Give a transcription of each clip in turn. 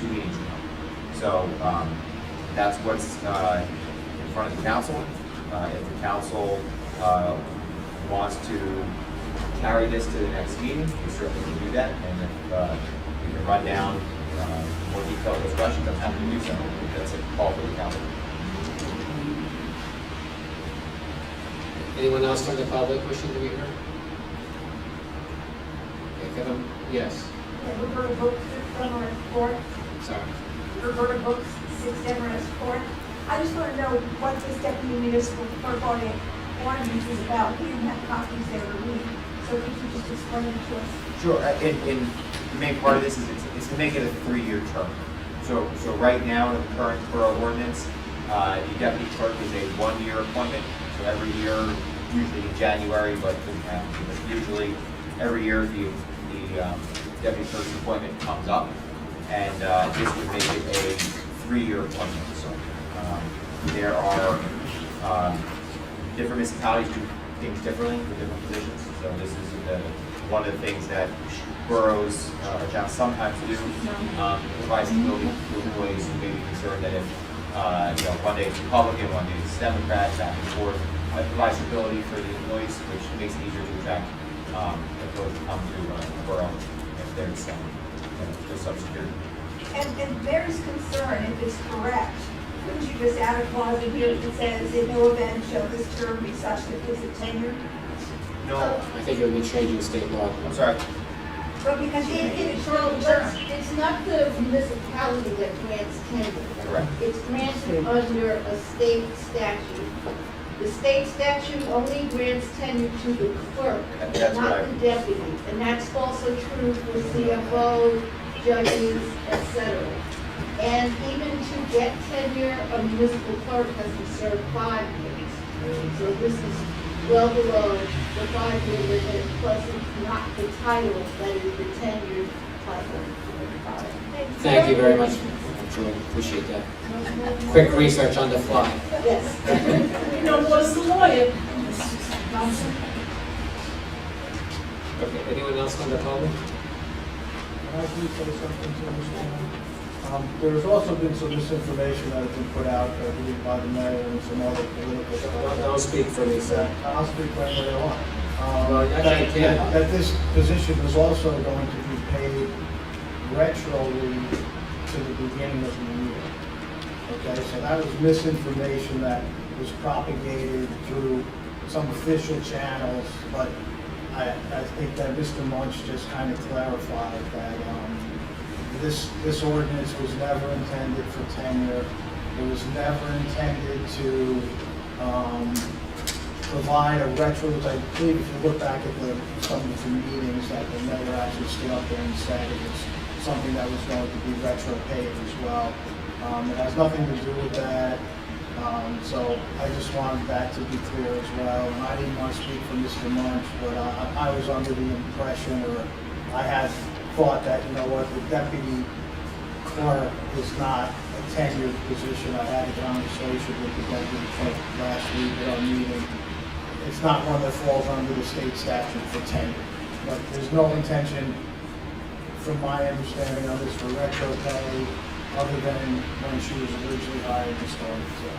two meetings ago. So, um, that's what's, uh, in front of the council. Uh, if the council, uh, wants to carry this to the next meeting, we certainly can do that. And if, uh, we can run down, uh, more detailed discussions, I'm happy to do so. That's a call for the council. Anyone else from the public wishing to be heard? Okay, Kevin, yes, Roberta Brooks, Six Demarest Court. sorry. Roberta Brooks, Six Demarest Court. I just want to know what this deputy municipal clerk audit warrant is about. We didn't have copies every week, so if you could just explain it to us. Sure, uh, and, and the main part of this is, it's- it's to make it a three-year term. So, so right now, in the current borough ordinance, uh, the deputy clerk is a one-year appointment. So every year, usually in January, but um, usually every year, the, the um, deputy clerk's appointment comes up. And uh, this would make it a three-year appointment. So um, there are um, different municipalities do things differently for different positions. So this is uh, one of the things that boroughs, uh, or towns sometimes do, um, provides the ability to employees who may be concerned that if, uh, you know, one day it's Republican, one day it's Democrat, back and forth, uh, provides the ability for the employees, which makes it easier to attract, um, employees to come to uh, a borough if there's, um, you know, there's some security. And, and there is concern if it's correct. Couldn't you just add a clause in here that says, in no event shall this term be such that it's a tenure? No, I think it would be changing state law. I'm sorry, But because you It- did it It's, short no, term. it's, it's not the municipality that grants tenure. correct. It's granted under a state statute. The state statute only grants tenure to the clerk, That- that's what I- not the deputy. And that's also true for CFO, judges, et cetera. And even to get tenure, a municipal clerk has to serve five years. So this is well below the five-year limit, plus it's not the title that is the tenure title. Thank you very much, Joy, appreciate that. Quick research on the fly. Yes. You know, was the lawyer. Okay, anyone else from the public? Can I please say something to this woman? Um, There has also been some misinformation that has been put out, I believe, by the mayor and some other political Don't, stuff. don't speak for me, sir. I'll speak when they want. Well, Um, actually, That you can. that- that this position is also going to be paid retroly to the beginning of the year. Okay, so that was misinformation that was propagated through some official channels, but I, I think that Mr. Munch just kind of clarified that, um, this, this ordinance was never intended for tenure. It was never intended to, um, provide a retro, I believe if you look back at the, some of the meetings that the mayor actually stood up there and said it was something that was going to be retro paid as well. Um, it has nothing to do with that, um, so I just wanted that to be clear as well. And I didn't want to speak for Mr. Munch, but uh, I, I was under the impression, or I had thought that, you know what, the deputy clerk is not a tenured position. I had a conversation with the deputy clerk last week at our meeting. It's not one that falls under the state statute for tenure. But there's no intention, from my understanding of this, for retro pay other than when she was originally hired and started, so.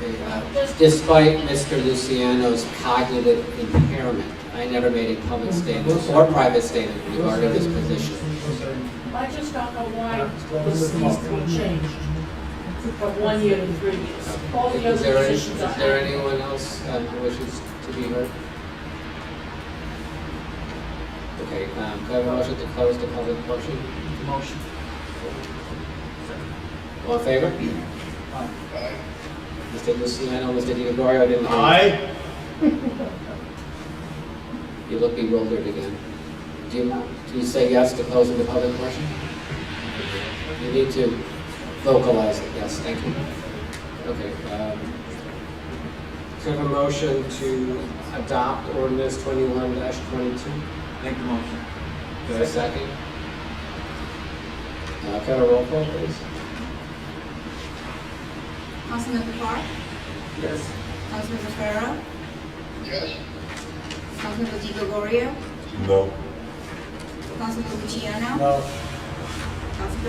Okay, uh, Despite Mr. Luciano's cognitive impairment, I never made a public statement or private statement regarding this position. Listen, I just don't know why this needs to be changed from one year to three years. All the Is other there any- positions are. Is there anyone else uh, who wishes to be heard? Okay, um, can I have a motion to close the public portion? Motion. All in favor? Aye. Mr. Luciano, Mr. DiGregorio, didn't. I, You look bewildered again. Do you, do you say yes to closing the public portion? You need to vocalize it, yes, thank you. Okay, um, so I have a motion to adopt ordinance twenty-one twenty-two? Make the motion. Do I have a second? Uh, can I have a roll call, please? Councilmember Park? Yes. Councilmember Farrow? Yes. Councilmember Di Gregorio? No. Councilmember Luciano? no. Councilmember